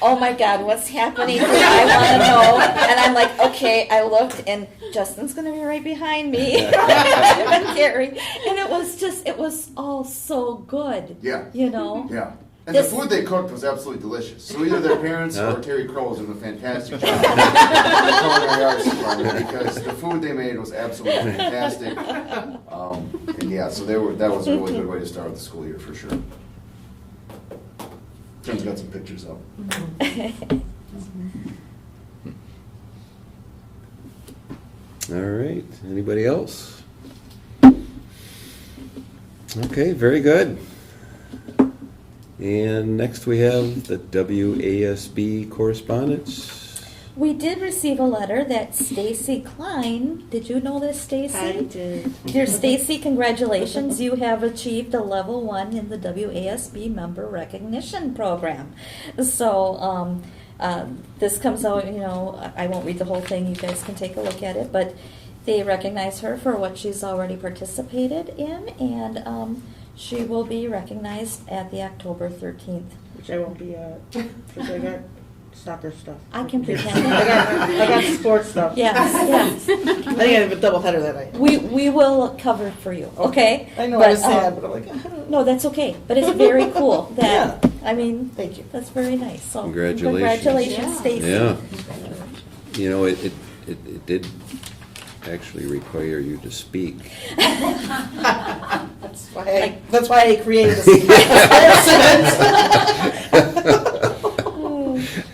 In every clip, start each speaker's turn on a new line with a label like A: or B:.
A: oh my god, what's happening? here? I want to know. And I'm like, okay, I looked, and Justin's gonna be right behind me. and Gary, and it was just, it was all so good,
B: Yeah,
A: you know.
B: yeah. And the
A: This-
B: food they cooked was absolutely delicious. So either their parents
C: Yeah.
B: or Terry Crow was doing a fantastic job. in the culinary arts department because the food they made was absolutely fantastic. Um, and yeah, so they were, that was a really good way to start the school year for sure. Tim's got some pictures up.
C: All right, anybody else? Okay, very good. And next we have the WASB correspondence.
A: we did receive a letter that Stacy Klein. Did you know this, Stacy?
D: did.
A: Dear Stacy, congratulations. You have achieved a level one in the WASB member recognition program. So, um, uh, this comes out, you know, I won't read the whole thing. You guys can take a look at it, but they recognize her for what she's already participated in, and um, she will be recognized at the October 13th.
D: Which I won't be at, because I got soccer stuff.
A: I can pretend.
D: I got, I got sports stuff.
A: Yes, yes.
D: I think I have a double header that night.
A: We, we will cover it for you, okay?
D: I know I was
A: But, um,
D: sad, but I'm like, I don't know.
A: No, that's okay, but it's very cool that,
D: Yeah.
A: I mean,
D: Thank you.
A: that's very nice, so.
C: Congratulations.
A: Congratulations,
E: Yeah.
A: Stacy.
C: Yeah, you know, it, it, it it did actually require you to speak.
D: That's why I, that's why I created this. sentence.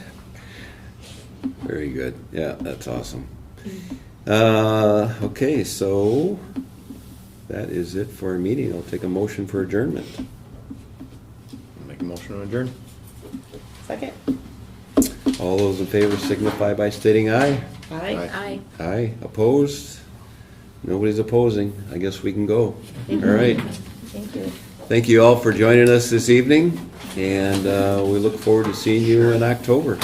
C: Very good, yeah, that's awesome. Uh, okay, so that is it for our meeting. I'll take a motion for adjournment. Make a motion to adjourn.
D: Second.
C: All those in favor signify by stating aye.
D: Aye.
E: Aye.
C: Aye, opposed? Nobody's opposing. I guess we can go. All right.
A: Thank you.
C: Thank you all for joining us this evening, and uh, we look forward to seeing you in October.